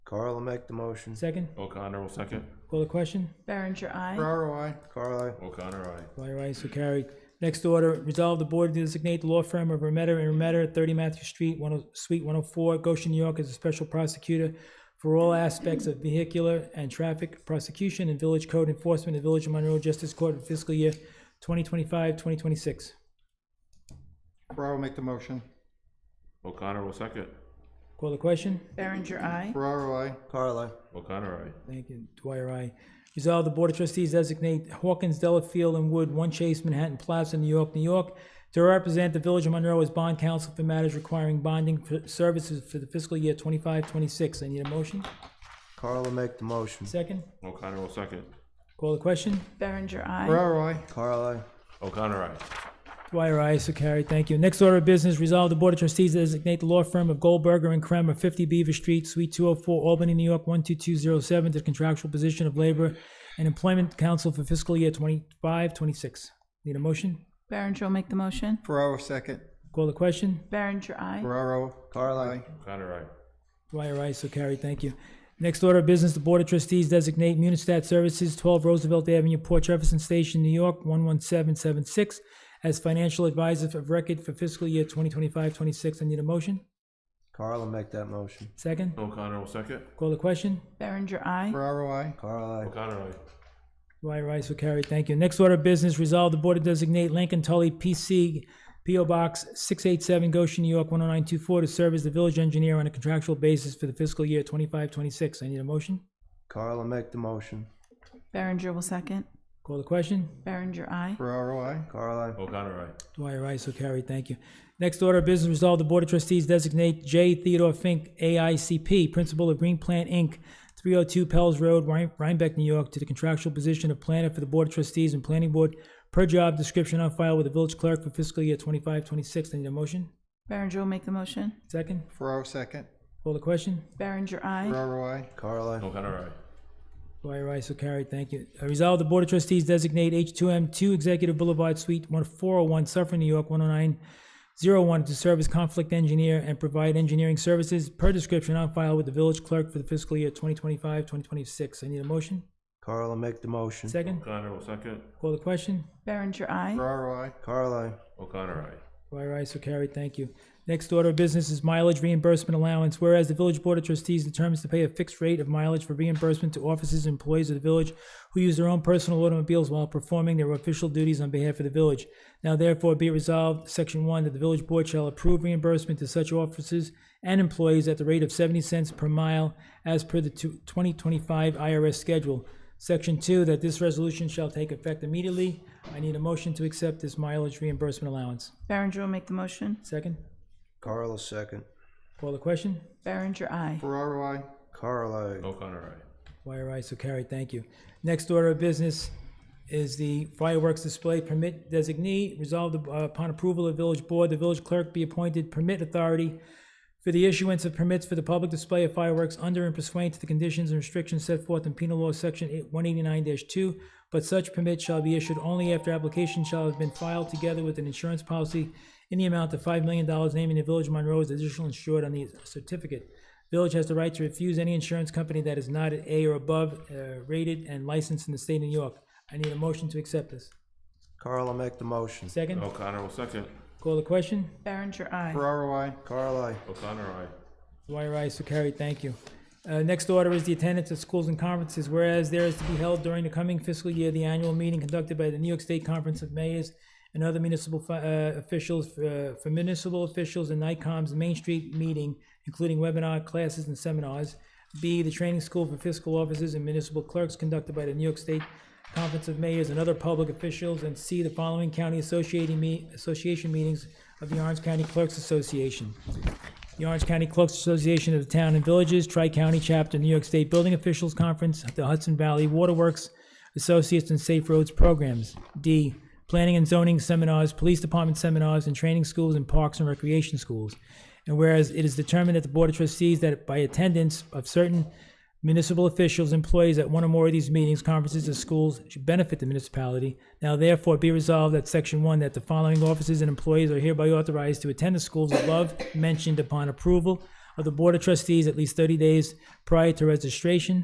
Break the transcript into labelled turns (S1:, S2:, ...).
S1: Carl will make the motion.
S2: Second,
S3: O'Connor will second.
S2: call the question.
S4: Berenger, aye.
S5: Ferraro, I.
S1: Carl,
S3: O'Connor, aye.
S2: Dwyer, aye, so carried. Next order, resolve the board to designate the law firm of Remetter and Remetter, 30 Matthew Street, 10 Suite 104, Goshen, New York, as a special prosecutor for all aspects of vehicular and traffic prosecution and village code enforcement in the Village of Monroe Justice Court for fiscal year 2025, 2026.
S5: Ferraro, make the motion.
S3: O'Connor will second.
S2: Call the question.
S4: Berenger, aye.
S5: Ferraro, I.
S1: Carl, aye.
S3: O'Connor, aye.
S2: Thank you. Dwyer, aye. Resolve the Board of Trustees designate Hawkins, Delafield, and Wood, One Chase, Manhattan Plaza, New York, New York, to represent the Village of Monroe as bond counsel for matters requiring bonding for services for the fiscal year 25, 26. I need a motion.
S1: Carl will make the motion.
S2: Second.
S3: O'Connor will second.
S2: Call the question.
S4: Berenger, aye.
S5: Ferraro, I.
S1: Carl, aye.
S3: O'Connor, aye.
S2: Dwyer, aye. So carried. Thank you. Next order of business, resolve the Board of Trustees designate the law firm of Goldberger and Kramer, 50 Beaver Street, Suite 204, Albany, New York, 12207, to the contractual position of labor and employment counsel for fiscal year 25, 26. Need a motion?
S4: Berenger will make the motion.
S5: Ferraro, second.
S2: Call the question.
S4: Berenger, aye.
S5: Ferraro,
S1: Carl,
S5: I.
S1: aye.
S3: O'Connor, aye.
S2: Dwyer, aye, so carried. Thank you. Next order of business, the Board of Trustees designate Munistat Services, 12 Roosevelt Avenue, Port Jefferson Station, New York, 11776, as financial advisor of record for fiscal year 2025-26. I need a motion.
S1: Carl will make that motion.
S2: Second.
S3: O'Connor will second.
S2: Call the question.
S4: Berenger, aye.
S5: Ferraro, I.
S1: Carl, aye.
S3: O'Connor, aye.
S2: Dwyer, aye, so carried. Thank you. Next order of business, resolve the Board to designate Lincoln Tully, PC, PO Box 687, Goshen, New York, 10924, to serve as the village engineer on a contractual basis for the fiscal year 25-26. I need a motion.
S1: Carl will make the motion.
S4: Berenger will second.
S2: Call the question.
S4: Berenger, aye.
S5: Ferraro, I.
S1: Carl, aye.
S3: O'Connor, aye.
S2: Dwyer, aye, so carried, thank you. Next order of business, resolve the Board of Trustees designate J. Theodore Fink, AICP, Principal of Green Plant, Inc., 302 Pell's Road, Rhine- Rhinebeck, New York, to the contractual position of planner for the Board of Trustees and Planning Board per job description on file with the village clerk for fiscal year 25, 26. I need a motion?
S4: Berenger will make the motion.
S2: Second?
S5: Ferraro, second.
S2: Call the question?
S4: Berenger, aye.
S5: Ferraro, I.
S1: Carl, aye.
S3: O'Connor, aye.
S2: Dwyer, aye, so carried, thank you. Uh, Resolve the Board of Trustees designate H2M 2 Executive Boulevard Suite 401, Suffolk, New York, 10901, to serve as conflict engineer and provide engineering services per description on file with the village clerk for the fiscal year 2025, 2026. I need a motion.
S1: Carl will make the motion.
S2: Second,
S3: O'Connor will second.
S2: call the question.
S4: Berenger, aye.
S5: Ferraro, I.
S1: Carl, aye.
S3: O'Connor, aye.
S2: Dwyer, aye, so carried, thank you. Next order of business is mileage reimbursement allowance. Whereas the Village Board of Trustees determines to pay a fixed rate of mileage for reimbursement to officers and employees of the village who use their own personal automobiles while performing their official duties on behalf of the village. Now therefore be it resolved, Section 1, that the Village Board shall approve reimbursement to such officers and employees at the rate of 70 cents per mile as per the two- 2025 IRS schedule. Section 2, that this resolution shall take effect immediately. I need a motion to accept this mileage reimbursement allowance.
S4: Berenger will make the motion.
S2: Second?
S1: Carl will second.
S2: Call the question.
S4: Berenger, aye.
S5: Ferraro, I.
S1: Carl, aye.
S3: O'Connor, aye.
S2: Dwyer, aye, so carried, thank you. Next order of business is the fireworks display permit designee. Resolved uh, upon approval of village board, the village clerk be appointed permit authority for the issuance of permits for the public display of fireworks under and pursuant to the conditions and restrictions set forth in penal law section one eighty-nine two, but such permit shall be issued only after application shall have been filed together with an insurance policy in the amount of five million dollars, naming the village of Monroe as additional insured on the certificate. Village has the right to refuse any insurance company that is not at A or above uh, rated and licensed in the state of New York. I need a motion to accept this.
S1: Carl will make the motion.
S2: Second,
S3: O'Connor will second.
S2: call the question.
S4: Berenger, aye.
S5: Ferraro, I.
S1: Carl, aye.
S3: O'Connor, aye.
S2: Dwyer, aye, so carried, thank you. Uh, Next order is the attendance at schools and conferences, whereas there is to be held during the coming fiscal year, the annual meeting conducted by the New York State Conference of Mayors and other municipal fi- uh, officials, uh, for municipal officials and NICOM's Main Street meeting, including webinar, classes, and seminars. B, the training school for fiscal officers and municipal clerks conducted by the New York State Conference of Mayors and other public officials. And C, the following county associating me, association meetings of the Orange County Clerks Association. The Orange County Clerks Association of the Town and Villages, Tri-County Chapter, New York State Building Officials Conference, the Hudson Valley Waterworks Associates and Safe Roads Programs. D, Planning and Zoning Seminars, Police Department Seminars, and Training Schools and Parks and Recreation Schools. And whereas it is determined at the Board of Trustees that by attendance of certain municipal officials, employees at one or more of these meetings, conferences, or schools should benefit the municipality. Now therefore be resolved that section one, that the following officers and employees are hereby authorized to attend the schools above mentioned upon approval of the Board of Trustees at least 30 days prior to registration.